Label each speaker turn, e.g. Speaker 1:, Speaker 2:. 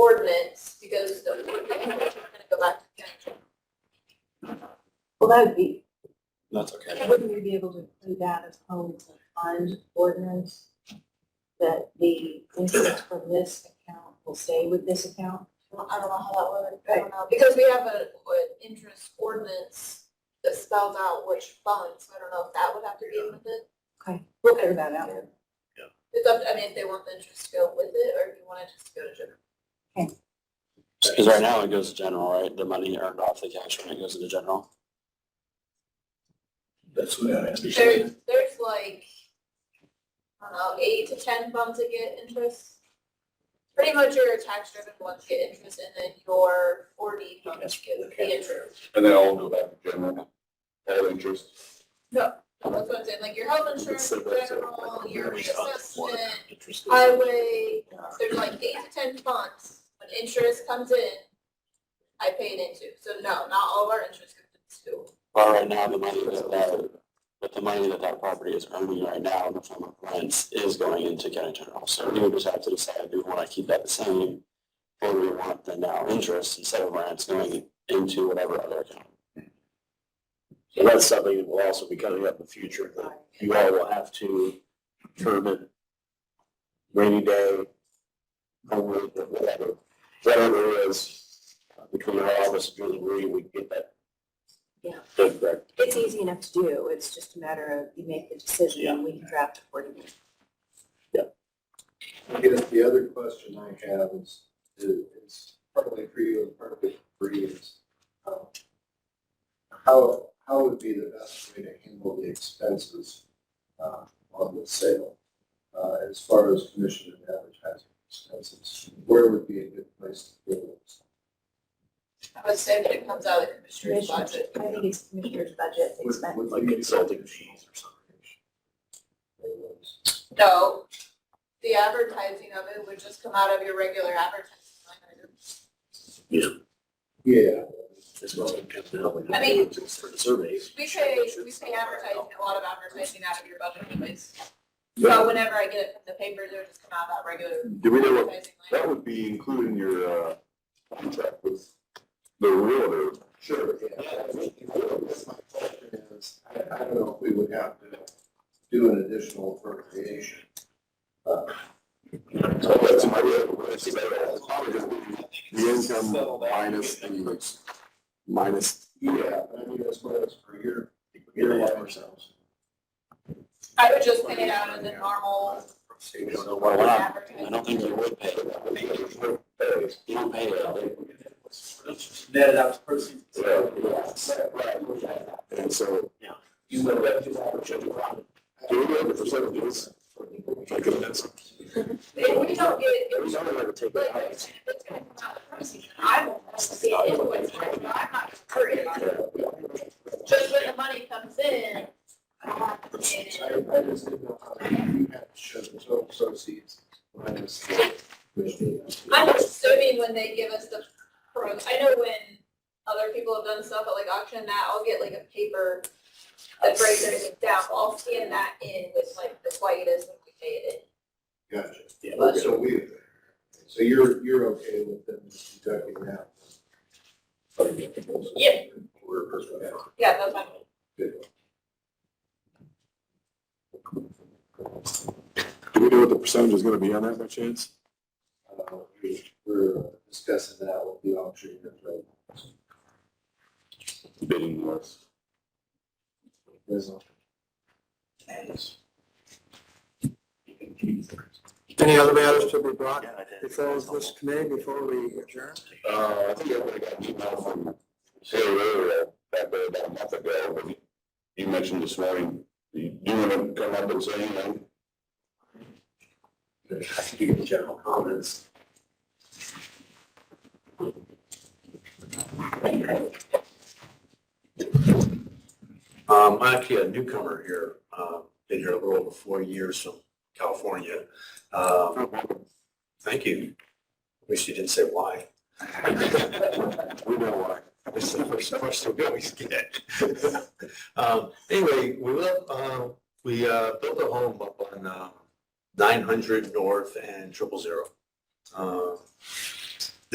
Speaker 1: ordinance, because the ordinance is gonna go back to council.
Speaker 2: Well, that would be,
Speaker 3: That's okay.
Speaker 2: wouldn't we be able to do that as always a fund ordinance? That the interest from this account will stay with this account?
Speaker 1: I don't know how that would, I don't know, because we have a, an interest ordinance that spells out which funds, I don't know if that would have to be with it.
Speaker 2: Okay, we'll figure that out.
Speaker 1: It's up, I mean, if they want the interest to go with it, or if you wanna just go to general.
Speaker 3: Because right now it goes to general, right? The money earned off the cash when it goes into general.
Speaker 4: That's what I asked.
Speaker 1: There's, there's like, I don't know, eight to ten funds that get interest. Pretty much your tax-driven ones get interest, and then your forty funds get the interest.
Speaker 5: And then I'll go back to general, all interest.
Speaker 1: That's what I'm saying, like your health insurance,
Speaker 5: It's so-
Speaker 1: general, your reassessment,
Speaker 4: Interest.
Speaker 1: highway, there's like eight to ten funds. When interest comes in, I pay it into, so no, not all of our interest comes into.
Speaker 3: But right now, the money that that, but the money that that property is earning right now in the form of rents is going into county general. So we would just have to decide, do we want to keep that the same? Or do we want the now interest instead of rents going into whatever other account?
Speaker 4: So that's something that will also be coming up in the future, that you all will have to determine rainy day, homework, whatever, whatever it is, uh, between our office and Julie Marie, we can get that.
Speaker 2: Yeah.
Speaker 4: Done correct.
Speaker 2: It's easy enough to do, it's just a matter of you make the decision and we can draft accordingly.
Speaker 6: I guess the other question I have is, is partly for you and partly for you is, um, how, how would be the best way to handle the expenses, uh, on the sale? Uh, as far as commission and advertising expenses, where would be a good place to go?
Speaker 1: I would say that it comes out of the commissioner's budget.
Speaker 2: I think it's commissioner's budget
Speaker 6: Would-
Speaker 2: expense.
Speaker 6: would
Speaker 4: Like
Speaker 6: you-
Speaker 4: consulting fees or
Speaker 6: something.
Speaker 1: No, the advertising of it would just come out of your regular advertising line item.
Speaker 6: Yeah,
Speaker 4: As well as coming up with-
Speaker 1: I mean-
Speaker 4: For the surveys.
Speaker 1: We pay, we pay advertising, a lot of advertising out of your budget anyways. So whenever I get it from the paper, they'll just come out of that regular
Speaker 5: Do we know what,
Speaker 1: advertising line.
Speaker 5: that would be including your, uh, contract with the realtor.
Speaker 6: sure, yeah. I mean, that's my question is, I, I don't know if we would have to do an additional appropriation. Uh,
Speaker 5: So that's my, that's probably gonna be the income minus the, like, minus.
Speaker 6: Yeah, but I mean, that's what it's for your, your life ourselves.
Speaker 1: I would just pay it out of the normal
Speaker 6: We don't know
Speaker 3: Well,
Speaker 6: what-
Speaker 3: we're not, I
Speaker 1: advertising.
Speaker 3: don't think you would pay it. You don't pay it.
Speaker 4: Netted out to proceeds.
Speaker 5: And so.
Speaker 4: Yeah.
Speaker 5: You know, that is our general problem. Do we have the percentages? Like, that's.
Speaker 1: If we don't get, if
Speaker 4: There's
Speaker 1: we-
Speaker 4: something I would take
Speaker 1: but
Speaker 4: that out.
Speaker 1: it's gonna come out of the proceeds, and I won't see it invoice, I'm not hurting on it. Just when the money comes in, I have to pay it.
Speaker 6: I, I just didn't know how you had to show the total proceeds. minus the- which means-
Speaker 1: I'm assuming when they give us the pro, I know when other people have done stuff at like auction and that, I'll get like a paper that breaks everything down, but I'll scan that in with like, that's why it is when we pay it
Speaker 6: Gotcha.
Speaker 4: Yeah.
Speaker 6: Okay, So we, so you're, you're okay with them deducting that?
Speaker 1: Yeah.
Speaker 6: We're personally.
Speaker 1: in. Yeah, that's fine.
Speaker 5: Do we know what the percentage is gonna be on that by chance?
Speaker 6: Uh, We're discussing that with the auction.
Speaker 5: Bidding wars.
Speaker 7: Any other matters to be brought
Speaker 4: Yeah, I did.
Speaker 7: before this committee, before we adjourn?
Speaker 5: Uh, I think I would have got an email from Terry earlier, back there about a month ago, but he- he mentioned this morning, you do want to come up and say anything?
Speaker 4: I think you get general comments. Um, I'm actually a newcomer here, um, been here a little over four years from California. Um, thank you. Wish you didn't say why.
Speaker 5: We know why.
Speaker 4: That's the first question we always get. Um, anyway, we live, uh, we, uh, built a home um, up on, uh, nine hundred north and triple zero. Uh,